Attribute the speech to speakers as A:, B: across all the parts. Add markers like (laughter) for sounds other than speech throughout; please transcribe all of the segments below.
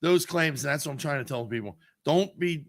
A: those claims. And that's what I'm trying to tell people. Don't be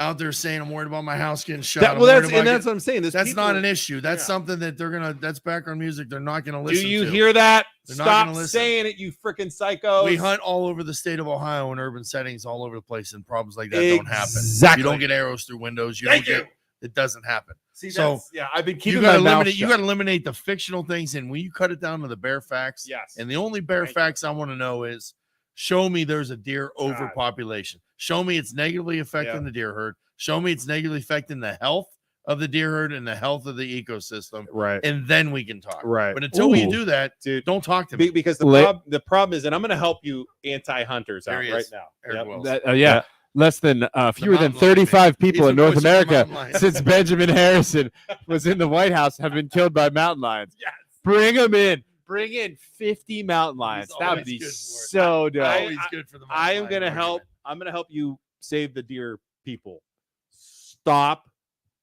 A: out there saying I'm worried about my house getting shot.
B: That,
A: I'm
B: well,
A: worried
B: that's
A: about
B: and that's
A: getting-"
B: what I'm saying. This
A: that's
B: people-
A: not an issue. That's
B: Yeah.
A: something that they're gonna. That's background music. They're not gonna listen.
B: Do you
A: to.
B: hear that?
A: They're not gonna
B: Stop
A: listen.
B: saying it, you freaking psycho.
A: We hunt all over the state of Ohio in urban settings, all over the place, and problems like that don't happen.
B: Exactly.
A: You don't get arrows through windows. You
B: Thank
A: don't
B: you.
A: get. It doesn't happen.
B: See,
A: So,
B: that's- yeah, I've been keeping
A: you gotta
B: my mouth
A: eliminate. You
B: shut.
A: gotta eliminate the fictional things, and when you cut it down to the bare facts,
B: yes.
A: and the only bare
B: Thank you.
A: facts I want to know is show me there's a deer overpopulation. Show me it's negatively affecting
B: Yeah.
A: the deer herd. Show me it's negatively affecting the health of the deer herd and the health of the ecosystem.
B: right.
A: And then we can talk.
B: right.
A: But until we
B: Ooh.
A: do that,
B: dude.
A: don't talk to
B: Be-
A: me.
B: because the,
C: Let-
B: prob- the problem is, and I'm going to help you anti-hunters
A: There
B: out
A: he
B: right
A: is.
B: now.
A: Eric
B: Yep.
A: Wells.
C: That- uh, yeah,
B: Yeah.
C: less than uh, fewer
A: mountain lion,
C: than
A: man.
C: 35 people
A: He's
C: in
A: the
C: North
A: voice of the
C: America
A: mountain lion.
C: (laughs) since Benjamin Harrison was in the White House have been killed by mountain lions.
B: Yes.
C: Bring them in. Bring in 50 mountain lions. That
A: always
C: would be
A: good for it.
C: so
B: (laughs)
C: dope.
B: I-
A: Always good for the
B: I am
A: mountain
B: going to
A: lion
B: help. I'm going to help you save the deer people. Stop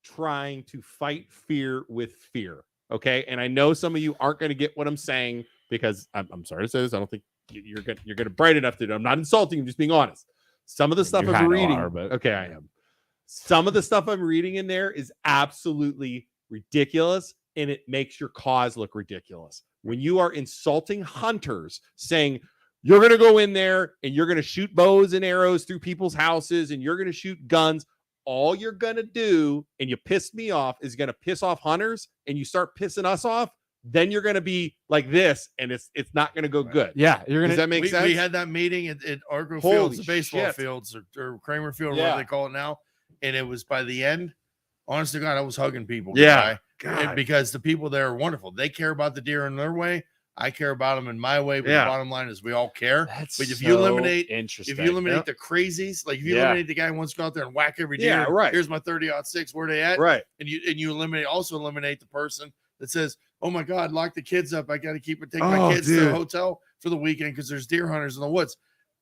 B: trying to fight fear with fear. Okay. And I know some of you aren't going to get what I'm saying because I'm, I'm sorry to say this. I don't think you- you're good. You're going to bright enough to do. I'm not insulting. I'm just being honest. Some of the stuff
C: You
B: I'm
C: kinda
B: reading.
C: are, but-
B: okay. I am. Some of the stuff I'm reading in there is absolutely ridiculous and it makes your cause look ridiculous. When you are insulting hunters saying, you're going to go in there and you're going to shoot bows and arrows through people's houses and you're going to shoot guns. All you're going to do, and you pissed me off, is going to piss off hunters and you start pissing us off. Then you're going to be like this and it's it's not going to go good.
C: Yeah, you're
B: Does
C: gonna.
B: that make
A: we,
B: sense?
A: we had that meeting at, at Argo
B: Holy
A: Fields, the baseball
B: shit.
A: fields, or, or Kramer Field, or
B: Yeah.
A: whatever they call it now. And it was by the end, honest to God, I was hugging people.
B: Yeah.
A: guy, and because the people there are wonderful. They care about the deer in their way. I care about them in my way. But
B: Yeah.
A: the bottom line is we all care.
C: That's
A: But if you eliminate-
C: interesting.
A: If you eliminate
B: Yep.
A: the crazies, like if you
B: Yeah.
A: eliminate the guy who wants to go out there and whack every deer,
B: Yeah, right.
A: here's my 30 odd six, where they at?
B: right.
A: And you and you eliminate also eliminate the person that says, Oh my god, lock the kids up. I gotta keep it take
B: Oh,
A: my kids to
B: dude.
A: the hotel for the weekend because there's deer hunters in the woods.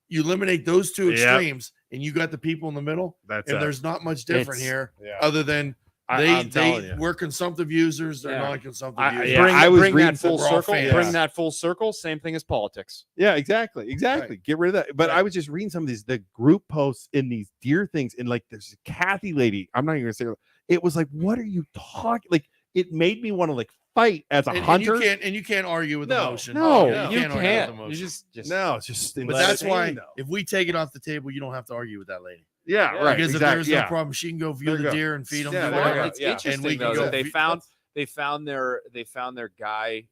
A: You eliminate those two
B: Yep.
A: extremes and you got the people in the middle,
B: That's
A: and there's not much different
C: It's-
A: here
B: yeah.
A: other than
B: I,
A: they
B: am telling
A: they
B: you.
A: were consumptive users, they're
B: Yeah.
A: non-consumptive
C: I,
A: users.
C: yeah,
B: Bring-
C: I was
B: bring
C: reading
B: that
C: full
A: we're all
C: circle.
A: fans.
C: Bring that full circle. Same thing as politics.
B: Yeah, exactly. Exactly. Get rid of that. But I was just reading some of these, the group posts in these deer things. And like, there's a Kathy lady. I'm not even going to say her- it was like, what are you talking? Like, it made me want to like fight as a
A: And, and
B: hunter.
A: you can't and you can't argue with
B: No,
A: emotion.
C: No,
B: no.
C: you
A: argue with
C: Oh, can't. You
A: emotion.
C: just, just
B: no, it's just,
A: But
B: let it
A: that's why
B: hang, though.
A: if we take it off the table, you don't have to argue with that lady.
B: yeah,
C: Yeah.
B: right.
A: because if
B: exactly.
A: there's
B: yeah.
A: no problem, she can go view
B: There
A: the
B: you go.
A: deer and feed them.
B: Yeah,
A: do
B: there
C: well,
B: you go.
A: whatever.
C: it's
B: Yeah.
A: And we
C: interesting
A: can
C: though
A: go
C: that they
A: vi-
C: found they found their they found their guy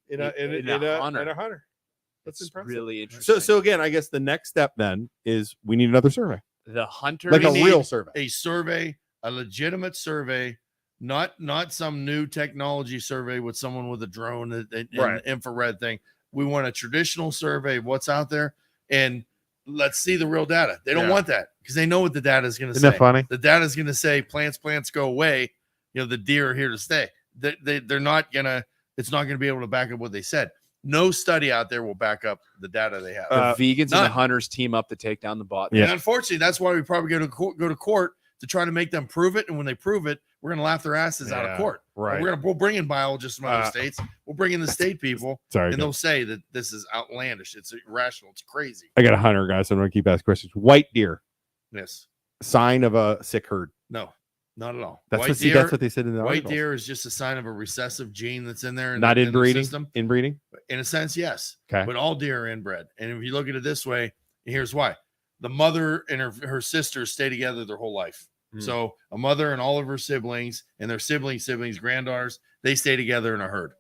B: hunter.
C: That's really interesting.
B: So, so again, I guess the next step then is we need another survey,
C: the hunter
B: like a
A: need-
B: real survey.
A: a survey, a legitimate survey, not not some new technology survey with someone with a drone and, and and
B: Right.
A: infrared thing. We want a traditional survey of what's out there, and let's see the real data. They don't
B: Yeah.
A: want that because they know what the data is going to
B: Isn't
A: say.
B: that funny?
A: The data is going to say plants, plants go away. You know, the deer are here to stay. They, they, they're not going to, it's not going to be able to back up what they said. No study out there will back up the data they have.
C: the
B: uh,
C: vegans and the
A: none.
C: hunters team up to take down the bot.
B: Yeah.
A: And unfortunately, that's why we probably go to court, go to court to try to make them prove it. And when they prove it, we're going to laugh their asses out
B: Yeah,
A: of court. And
B: Right.
A: We're going to we'll bring in biologists from other
B: Uh,
A: states. We'll bring in the state people,
B: Sorry.
A: and
B: guys.
A: they'll say that this is outlandish. It's irrational. It's crazy.
B: I got a hunter, guys. So I'm going to keep asking questions. White deer,
A: Yes.
B: sign of a sick herd.
A: No. Not at all.
B: That's
A: white
B: what see,
A: deer,
B: that's what they said in the
A: white
B: article.
A: deer is just a sign of a recessive gene that's in there. and
B: Not
A: in the
B: inbreeding.
A: system.
B: Inbreeding.
A: in a sense, yes.
B: Okay.
A: But all deer are inbred. And if you look at it this way, here's why. The mother and her, her sisters stay together their whole life.
B: Mm.
A: So a mother and all of her siblings and their siblings, siblings, granddaughters, they stay together in a herd.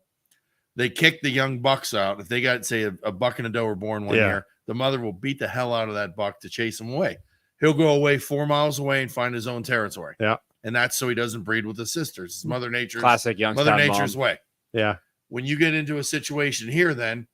A: They kick the young bucks out. If they got, say, a, a buck and a doe were born one
B: Yeah.
A: year, the mother will beat the hell out of that buck to chase him away. He'll go away four miles away and find his own territory.
B: Yeah. Hmm.
A: And that's so he doesn't breed with his sisters. It's Mother Nature's
C: Classic
A: Mother
C: Youngstown
A: Nature's
C: mom.
A: way
B: Yeah.
A: when you get into a situation here, then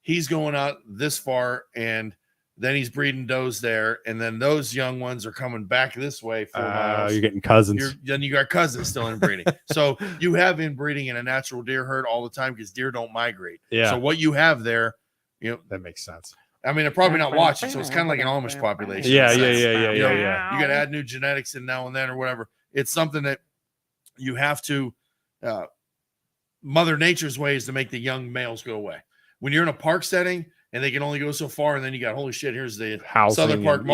A: he's going out this far and then he's breeding does there, and then those young ones are coming back this way four
B: Uh,
A: miles.
B: you're getting cousins.
A: You're, then you got cousins still
B: (laughs)
A: inbreeding. so you have inbreeding in a natural deer herd all the time because deer don't migrate.
B: yeah,
A: So what you have there, you know,
B: that makes sense.
A: I mean, they're probably not watching, so it's kind of like an Amish population. in
B: Yeah,
A: a
B: yeah,
A: sense.
B: yeah, yeah,
A: You know,
B: yeah, yeah.
A: You got to add new genetics in now and then or whatever. It's something that you have to. Uh, Mother Nature's way is to make the young males go away. When you're in a park setting and they can only go so far, and then you got holy shit, here's the
B: Housing
A: Southern Park
B: and-